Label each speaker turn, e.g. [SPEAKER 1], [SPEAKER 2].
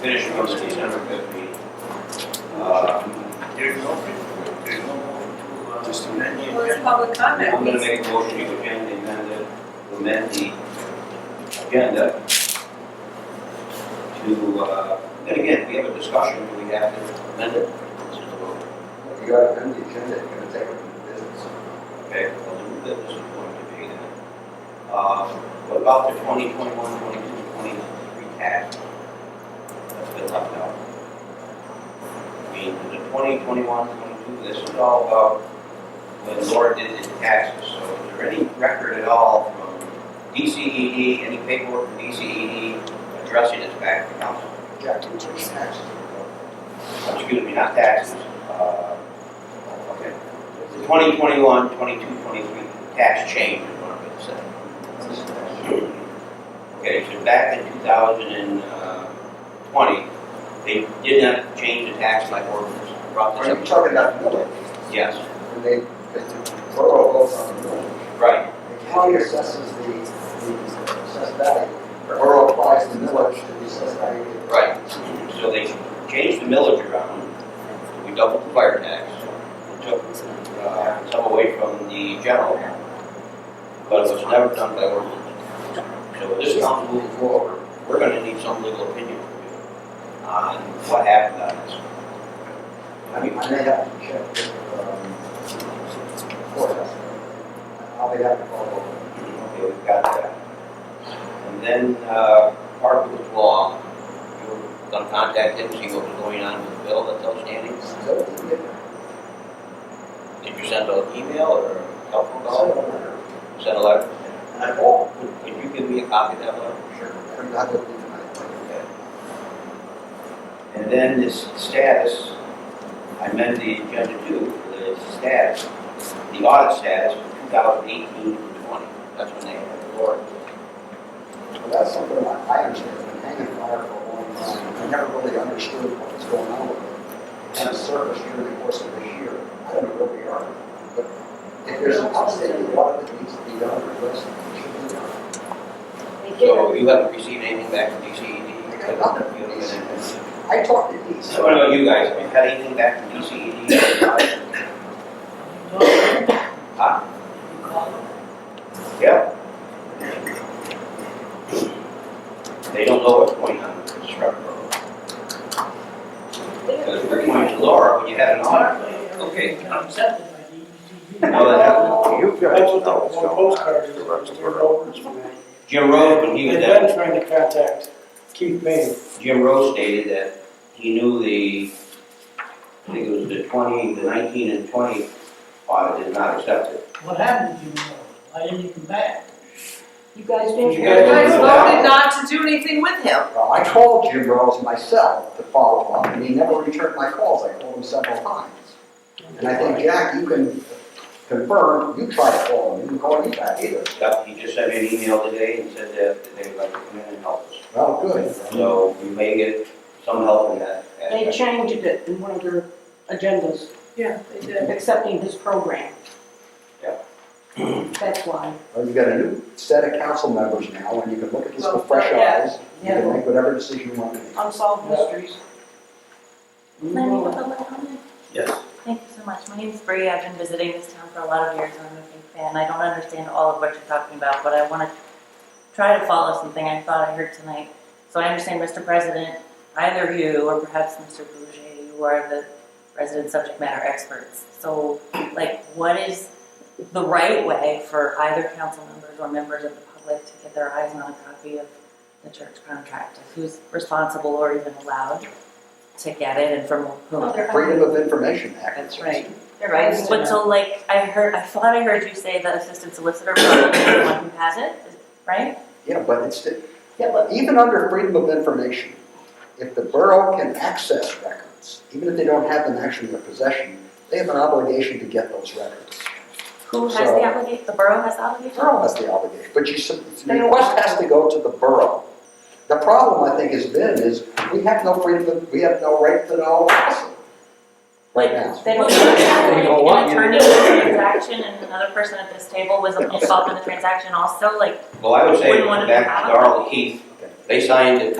[SPEAKER 1] finishing up at eight hundred fifty. Uh,
[SPEAKER 2] There's no, there's no more to, uh, amend the
[SPEAKER 3] Well, it's
[SPEAKER 2] agenda.
[SPEAKER 3] public comment.
[SPEAKER 1] I'm gonna make a motion to amend the amended, amend the agenda to, uh, then again, we have a discussion, do we have to amend it?
[SPEAKER 4] If you got to amend the agenda, you're gonna take it from the business.
[SPEAKER 1] Okay, well, the new business is going to be then. Uh, what about the 2021, 22, 23 tax? That's been left out. I mean, the 2021, 22, this is all about when Laura did the taxes. So is there any record at all from DCED, any paperwork from DCED addressing this back to council? Excuse me, not taxes, uh, okay. The 2021, 22, 23 tax change is what I'm going to say. Okay, so back in 2020, uh, they did not change the tax like ordinance. Brought
[SPEAKER 4] Are you
[SPEAKER 1] this up.
[SPEAKER 4] talking about Miller?
[SPEAKER 1] Yes,
[SPEAKER 4] When they, because the borough goes on Miller.
[SPEAKER 1] right,
[SPEAKER 4] The county assesses the, the assessed value. The borough applies the millage to the assessed value.
[SPEAKER 1] right. So they changed the millage around, we doubled the fire tax, took uh, some away from the general, but it was never done by ordinance. So this council moving forward, we're gonna need some legal opinion from you on what happened on this.
[SPEAKER 4] I mean, I may have to check with, um, courthouse. I'll be happy to follow up.
[SPEAKER 1] Okay, we've got that. And then, uh, Parker was long, you were gonna contact him, see what was going on with the bill that's outstanding?
[SPEAKER 4] So, it's a different-
[SPEAKER 1] Did you send an email or a telephone
[SPEAKER 4] it's a
[SPEAKER 1] call?
[SPEAKER 4] different matter.
[SPEAKER 1] Send a letter?
[SPEAKER 4] And I will,
[SPEAKER 1] Could- Could you give me a copy of that letter?
[SPEAKER 4] sure, I'm not going to leave tonight.
[SPEAKER 1] And then this status, I meant the agenda too, the status, the audit status for 2018 to 20. That's when they had the board.
[SPEAKER 4] Well, that's something I, I understand, I've been hanging fire for a long time, I never really understood what was going on with it. And it surfaced during the course of this year, I don't know where we are, but if there's an outstanding audit that needs to be done, or less, it should be done.
[SPEAKER 1] So you haven't received anything back from E DCED?
[SPEAKER 4] I got nothing from DCED. I talked to these.
[SPEAKER 1] So what
[SPEAKER 5] uh,
[SPEAKER 1] about you guys? Have you had anything back from E DCED? Huh? Yeah. They don't know what's going on with the truck road. Because we're going to Laura, when you have an audit.
[SPEAKER 2] Okay. I'm accepted by the EDC.
[SPEAKER 1] No, that happened.
[SPEAKER 5] You guys
[SPEAKER 2] That's
[SPEAKER 5] know
[SPEAKER 2] what the
[SPEAKER 5] what's
[SPEAKER 2] one
[SPEAKER 5] going
[SPEAKER 2] postcard
[SPEAKER 5] on.
[SPEAKER 2] is,
[SPEAKER 5] The
[SPEAKER 2] it's
[SPEAKER 5] rest of
[SPEAKER 2] turned
[SPEAKER 5] the
[SPEAKER 2] over to me.
[SPEAKER 1] Jim Rose, when he was
[SPEAKER 2] They've
[SPEAKER 1] at,
[SPEAKER 2] been trying to contact Keith Payne.
[SPEAKER 1] Jim Rose stated that he knew the, I think it was the twenty, the nineteen and twenty audit is not accepted.
[SPEAKER 2] What happened to you? I didn't even back.
[SPEAKER 6] You guys
[SPEAKER 1] You
[SPEAKER 6] didn't.
[SPEAKER 1] guys
[SPEAKER 3] You guys voted not to do anything with him.
[SPEAKER 4] Well, I called Jim Rose myself to follow up, and he never returned my calls, I called him several times. And I think, Jack, you can confirm, you tried to call him, you didn't call me back either.
[SPEAKER 1] Yep, he just sent me an email today and said that they'd like to come in and help us.
[SPEAKER 4] Well, good.
[SPEAKER 1] So we may get some help in that.
[SPEAKER 6] They
[SPEAKER 1] aspect.
[SPEAKER 6] changed it in one of their agendas,
[SPEAKER 3] Yeah, they did.
[SPEAKER 6] accepting his program.
[SPEAKER 1] Yeah.
[SPEAKER 6] That's why.
[SPEAKER 4] Well, you've got a new set of council members now, and you can look at this
[SPEAKER 3] Well,
[SPEAKER 4] with fresh
[SPEAKER 3] yeah.
[SPEAKER 4] eyes. You
[SPEAKER 6] Yeah.
[SPEAKER 4] can make whatever decision you want to make.
[SPEAKER 6] Unsolved mysteries.
[SPEAKER 7] Lenny, with a little comment?
[SPEAKER 1] Yes.
[SPEAKER 7] Thank you so much. My name's Bree. I've been visiting this town for a lot of years. and I'm a big fan. I don't understand all of what you're talking about, but I want to try to follow something I thought I heard tonight. So I understand, Mr. President, either you or perhaps Mr. Bouger, you are the resident subject matter experts. So, like, what is the right way for either council members or members of the public to get their eyes on a copy of the church contract? Who's responsible or even allowed to get it and from whom?
[SPEAKER 4] Freedom of Information Act.
[SPEAKER 7] That's right.
[SPEAKER 3] Their rights to
[SPEAKER 7] But
[SPEAKER 3] know.
[SPEAKER 7] so like, I heard, I thought I heard you say that assistant solicitor probably is the one who has it, right?
[SPEAKER 4] Yeah, but it's, yeah, but even under freedom of information, if the borough can access records, even if they don't have them actually in their possession, they have an obligation to get those records.
[SPEAKER 7] Who has
[SPEAKER 4] So-
[SPEAKER 7] the obligation, the borough has the
[SPEAKER 4] The
[SPEAKER 7] obligation?
[SPEAKER 4] borough has the obligation, but you, sub- the
[SPEAKER 6] They don't-
[SPEAKER 4] request has to go to the borough. The problem, I think, has been is we have no freedom, of- we have no right to know. Right now.
[SPEAKER 7] They don't like, an attorney in the transaction and another person at this table was involved in the transaction also, like,
[SPEAKER 1] Well, I would say,
[SPEAKER 7] Wouldn't want to be
[SPEAKER 1] back
[SPEAKER 7] out
[SPEAKER 1] to
[SPEAKER 7] of it.
[SPEAKER 1] Darrell Keith, they signed it